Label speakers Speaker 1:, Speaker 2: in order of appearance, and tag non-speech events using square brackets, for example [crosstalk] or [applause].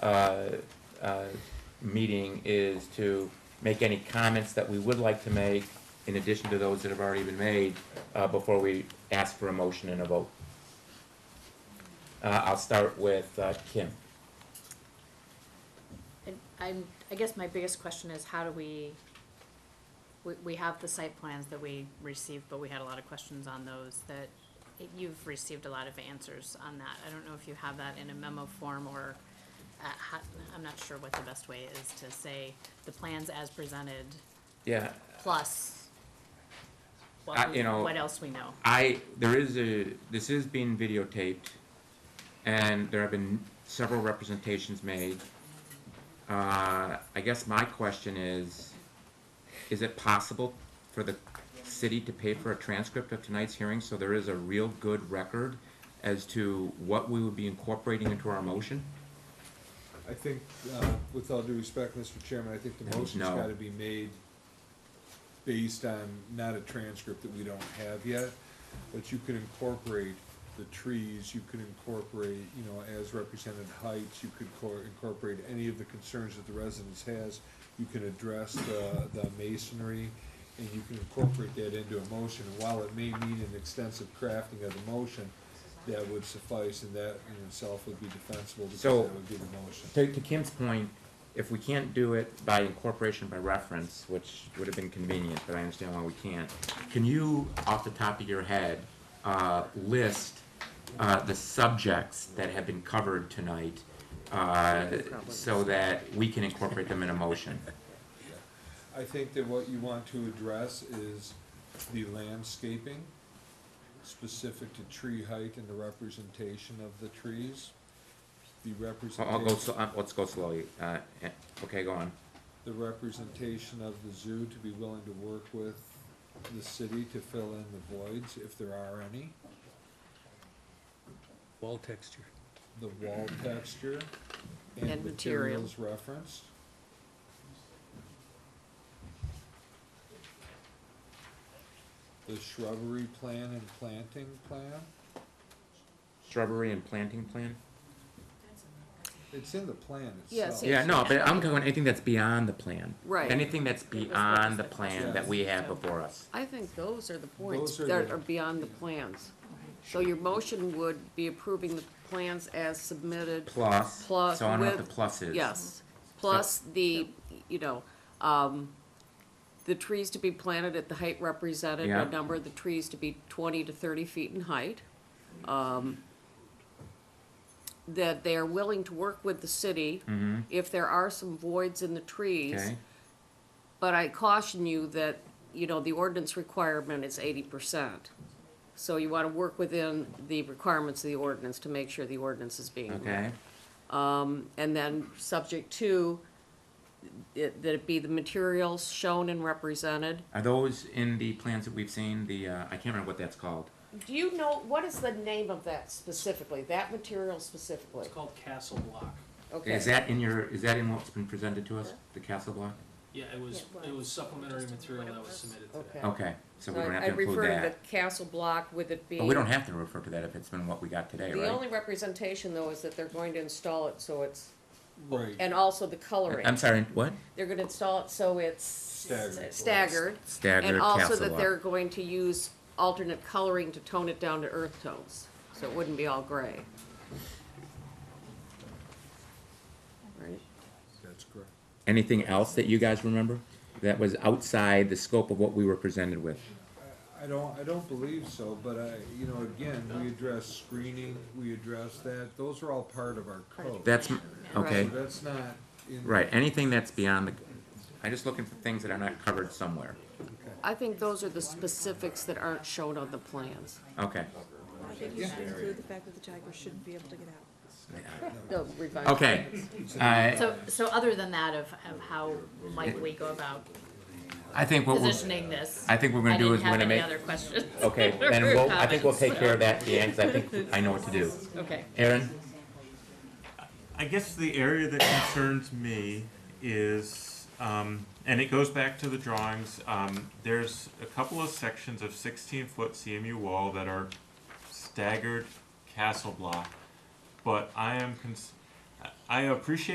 Speaker 1: uh, uh, meeting is to make any comments that we would like to make in addition to those that have already been made, uh, before we ask for a motion and a vote. Uh, I'll start with, uh, Kim.
Speaker 2: And I'm, I guess my biggest question is how do we, we, we have the site plans that we received, but we had a lot of questions on those that you've received a lot of answers on that. I don't know if you have that in a memo form or, uh, how, I'm not sure what the best way is to say the plans as presented
Speaker 1: Yeah, I-
Speaker 2: plus what, we-
Speaker 1: Uh, you know-
Speaker 2: what else we know.
Speaker 1: I, there is a, this is being videotaped, and there have been several representations made. Uh, I guess my question is, is it possible for the city to pay for a transcript of tonight's hearing, so there is a real good record as to what we would be incorporating into our motion?
Speaker 3: I think, uh, with all due respect, Mr. Chairman, I think the
Speaker 1: No.
Speaker 3: motion's gotta be made based on not a transcript that we don't have yet, but you can incorporate the trees, you could incorporate, you know, as represented heights, you could cor- incorporate any of the concerns that the residence has. You can address the, the masonry, and you can incorporate that into a motion, and while it may need an extensive crafting of the motion, that would suffice, and that in itself would be defensible, because that
Speaker 1: So-
Speaker 3: would be the motion.
Speaker 1: To, to Kim's point, if we can't do it by incorporation by reference, which would have been convenient, but I understand why we can't, can you, off the top of your head, uh, list, uh, the subjects that have been covered tonight, uh, so that we can incorporate them in a motion?
Speaker 3: I think that what you want to address is the landscaping specific to tree height and the representation of the trees. The
Speaker 1: I'll, I'll go,
Speaker 3: representation,
Speaker 1: sl- uh, let's go slowly, uh, eh, okay, go on.
Speaker 3: the representation of the zoo to be willing to work with the city to fill in the voids, if there are any,
Speaker 4: Wall texture.
Speaker 3: the wall texture and
Speaker 5: And material.
Speaker 3: materials referenced. The shrubbery plan and planting plan.
Speaker 1: Shrubbery and planting plan?
Speaker 3: It's in the plan
Speaker 5: Yeah,
Speaker 3: itself.
Speaker 5: it's
Speaker 1: Yeah, no, but I'm going, anything that's beyond the plan.
Speaker 5: Right.
Speaker 1: Anything that's beyond the plan that we have
Speaker 2: Yeah.
Speaker 1: before us.
Speaker 5: I think those are the points
Speaker 3: Those are
Speaker 5: that
Speaker 3: the-
Speaker 5: are beyond the plans. So your motion would be approving the plans as submitted,
Speaker 1: plus.
Speaker 5: Plus
Speaker 1: So I don't know what the
Speaker 5: with-
Speaker 1: plus is.
Speaker 5: yes, plus the, you know, um, the trees to be planted at the height represented,
Speaker 1: Yeah.
Speaker 5: a number of the trees to be twenty to thirty feet in height. Um, That they are willing to work with the city
Speaker 1: hmm
Speaker 5: if there are some voids in the trees.
Speaker 1: okay,
Speaker 5: But I caution you that, you know, the ordinance requirement is eighty percent. So you wanna work within the requirements of the ordinance to make sure the ordinance is being met.
Speaker 1: okay,
Speaker 5: Um, and then, subject to, it, that it be the materials shown and represented.
Speaker 1: are those in the plans that we've seen, the, uh, I can't remember what that's called,
Speaker 5: Do you know, what is the name of that specifically, that material specifically?
Speaker 4: It's called Castle Block.
Speaker 5: Okay.
Speaker 1: is that in your, is that in what's been presented to us, the castle block?
Speaker 4: Yeah, it was,
Speaker 2: Yeah, it
Speaker 4: it
Speaker 2: was.
Speaker 4: was supplementary
Speaker 2: Just
Speaker 4: material
Speaker 2: what it
Speaker 4: that was
Speaker 2: was.
Speaker 4: submitted today.
Speaker 5: Okay.
Speaker 1: Okay, so we
Speaker 5: So
Speaker 1: don't
Speaker 5: I-
Speaker 1: have to include
Speaker 5: I refer to
Speaker 1: that,
Speaker 5: the castle block with it being.
Speaker 1: but we don't have to refer to that if it's been what we got today,
Speaker 5: The
Speaker 1: right?
Speaker 5: only representation, though, is that they're going to install it so it's
Speaker 3: Right,
Speaker 5: And also the
Speaker 1: I'm
Speaker 5: coloring.
Speaker 1: sorry, what?
Speaker 5: They're gonna install it so it's
Speaker 3: Staggered.
Speaker 5: staggered.
Speaker 1: Staggered
Speaker 5: And also
Speaker 1: castle
Speaker 5: that
Speaker 1: block,
Speaker 5: they're going to use alternate coloring to tone it down to earth tones, so it wouldn't be all gray. Right?
Speaker 3: that's correct.
Speaker 1: anything else that you guys remember? That was outside the scope of what we were presented with,
Speaker 3: I don't, I don't believe so, but I, you know, again, we address screening, we address that, those are all part of our code.
Speaker 1: that's, m- okay,
Speaker 3: So that's not in.
Speaker 1: right, anything that's beyond the, I'm just looking for things that are not covered somewhere,
Speaker 5: I think those are the specifics that aren't shown on the plans.
Speaker 1: okay.
Speaker 6: I think you should include the fact that the tiger shouldn't be able to get out.
Speaker 5: The revised
Speaker 1: Okay,
Speaker 5: plans.
Speaker 1: I,
Speaker 2: So, so other than that of, of how might we go about
Speaker 1: I think what we're,
Speaker 2: positioning this?
Speaker 1: I think we're gonna do is we're gonna make,
Speaker 2: I didn't have any other questions. [laughs]
Speaker 1: okay, then
Speaker 2: or
Speaker 1: we'll, I think we'll take
Speaker 2: comments.
Speaker 1: care of that, Dan, because I think I know what to do.
Speaker 2: Okay.
Speaker 1: Aaron,
Speaker 7: I guess the area that concerns me is, um, and it goes back to the drawings, um, there's a couple of sections of sixteen foot CMU wall that are staggered castle block. But I am cons- I- I appreciate